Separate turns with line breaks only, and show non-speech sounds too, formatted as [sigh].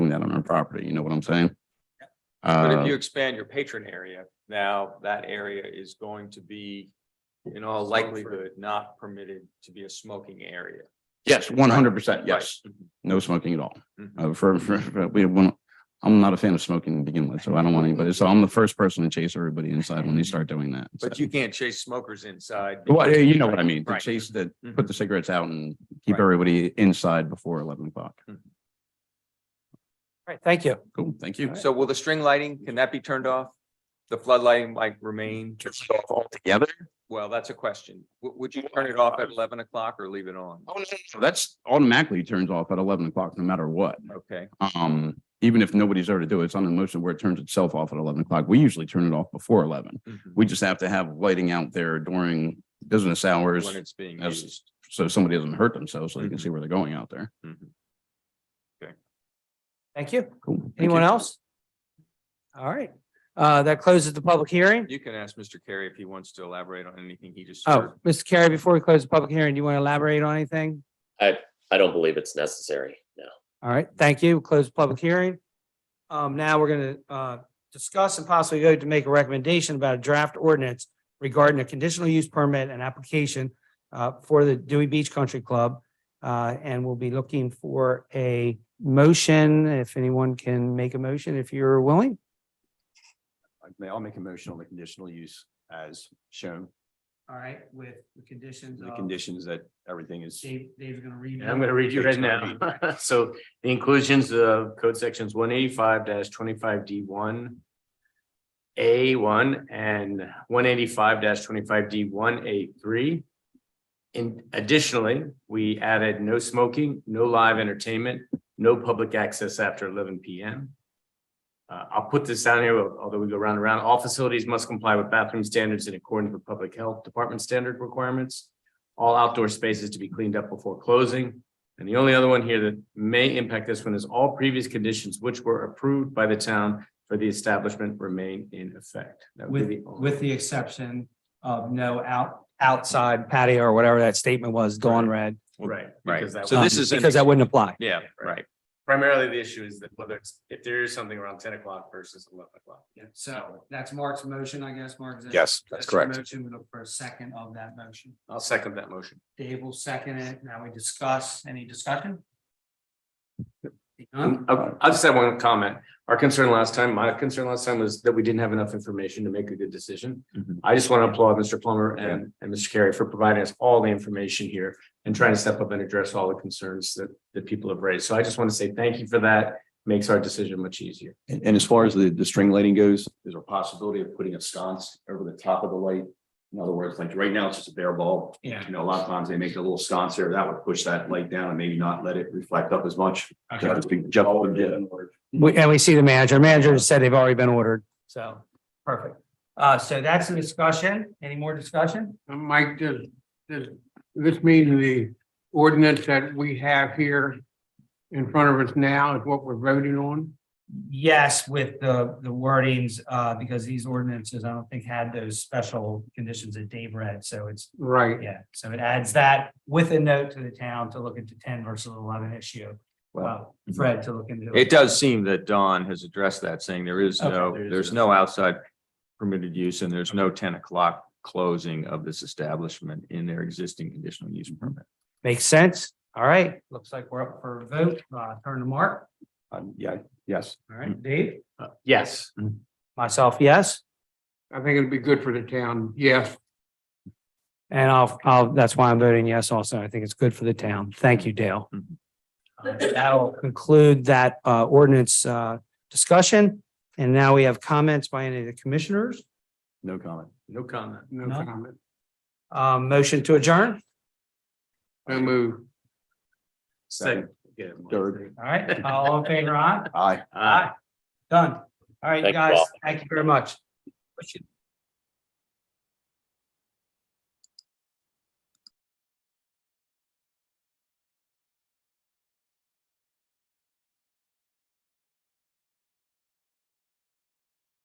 that on our property, you know what I'm saying?
But
Uh,
if you expand your patron area, now that area is going to be in all likelihood not permitted to be a smoking area.
Yes, one hundred percent,
Right.
yes, no smoking at all.
Mhm.
Uh, for, for, for- we want, I'm not a fan of smoking to begin with, so I don't want anybody, so I'm the first person to chase everybody inside when they start doing that. so.
Mm-hmm. But you can't chase smokers inside.
Well, yeah, you know what I mean, to
Right.
chase the,
Mhm.
put the cigarettes out and keep
Right. Mm-hmm.
everybody inside before eleven o'clock.
All right, thank you.
Cool, thank you.
So will the string lighting, can that be turned off? The floodlighting like remain?
Altogether?
Well, that's a question. Would, would you turn it off at eleven o'clock or leave it on?
Oh, no, no, that's automatically turns off at eleven o'clock, no matter what.
Okay,
Um, even if nobody's there to do it, it's on a motion where it turns itself off at eleven o'clock. We usually turn it off before eleven.
Mhm.
We just have to have lighting out there during business hours,
when it's being
that's-
used.
so somebody doesn't hurt themselves, so they can
Mm-hmm.
see where they're going out there.
Mhm.
Thank you.
Cool. thank
Anyone
you.
else? All right, uh, that closes the public hearing.
You can ask Mr. Carey if he wants to elaborate on anything he just
Oh,
heard.
Mr. Carey, before we close the public hearing, do you want to elaborate on anything?
I don't believe it's necessary, no.
All right, thank you. Close the public hearing. Um, now we're gonna, uh, discuss and possibly go to make a recommendation about a draft ordinance regarding a conditional use permit and application, uh, for the Dewey Beach Country Club. Uh, and we'll be looking for a motion, if anyone can make a motion, if you're willing.
May I'll make a motion on the conditional use as shown,
All right, with the conditions
the conditions that everything is.
Dave, Dave's gonna read.
And I'm gonna read you right now. [laughs] So the inclusions of code sections one eighty-five twenty-five D one. A one and one eighty-five twenty-five D one A three. And additionally, we added no smoking, no live entertainment, no public access after eleven P M. Uh, I'll put this down here, although we go round and round, all facilities must comply with bathroom standards in accordance with public health department standard requirements. All outdoor spaces to be cleaned up before closing. And the only other one here that may impact this one is all previous conditions which were approved by the town for the establishment remain in effect. That would be
With,
the only-
with the exception of no out, outside patio or whatever that statement was, Dawn read.
Right.
Right,
because that
so
was-
this is, an-
Because that wouldn't apply.
yeah, right.
Primarily, the issue is that whether it's, if there is something around ten o'clock versus eleven o'clock.
So that's Mark's motion, I guess, Mark.
Yes, that's correct.
Motion, we look for a second of that motion.
I'll second that motion.
Dave will second it. Now we discuss. Any discussion?
Um, I I just have one comment. Our concern last time, my concern last time was that we didn't have enough information to make a good decision.
Mm-hmm.
Mhm.
I just want to applaud Mr. Plummer and, and Mr. Carey for providing us all the information here and trying to step up and address all the concerns that, that people have raised. So I just want to say thank you for that. Makes our decision much easier.
And, and as far as the, the string lighting goes, is there a possibility of putting a sconce over the top of the light? In other words, like right now, it's just a bare bulb.
Yeah.
You know, a lot of times they make a little sconce there that would push that light down and maybe not let it reflect up as much. That would be- Jeff would do it.
We, and we see the manager. Manager said they've already been ordered, so, perfect. Uh, so that's the discussion. Any more discussion?
Uh, Mike, does, does this mean the ordinance that we have here in front of us now is what we're voting on?
Yes, with the, the wordings, uh, because these ordinances, I don't think had those special conditions that Dave read, so it's,
Right.
yeah. So it adds that with a note to the town to look into ten versus eleven issue. Well, Fred to look into.
It does seem that Don has addressed that, saying there is no,
Okay.
there's no outside permitted use and there's no ten o'clock closing of this establishment in their existing conditional use permit.
Makes sense. All right, looks like we're up for a vote. Uh, turn to Mark.
Um, yeah, yes.
All right, Dave,
Uh, Yes.
Mm. myself, yes.
I think it'd be good for the town, yes.
And I'll, I'll, that's why I'm voting yes also. I think it's good for the town. Thank you, Dale.
Mm-hmm.
Mhm.
Uh, That'll conclude that uh, ordinance uh, discussion. And now we have comments by any of the commissioners.
No comment.
No comment.
No
No.
comment.
Um, Motion to adjourn.
No move.
Second. Yeah, Mike.
Third.
All right, all in favor, aye?
Aye.
Aye.
Done. All right, you
Thank you
guys,
all.
thank you very much.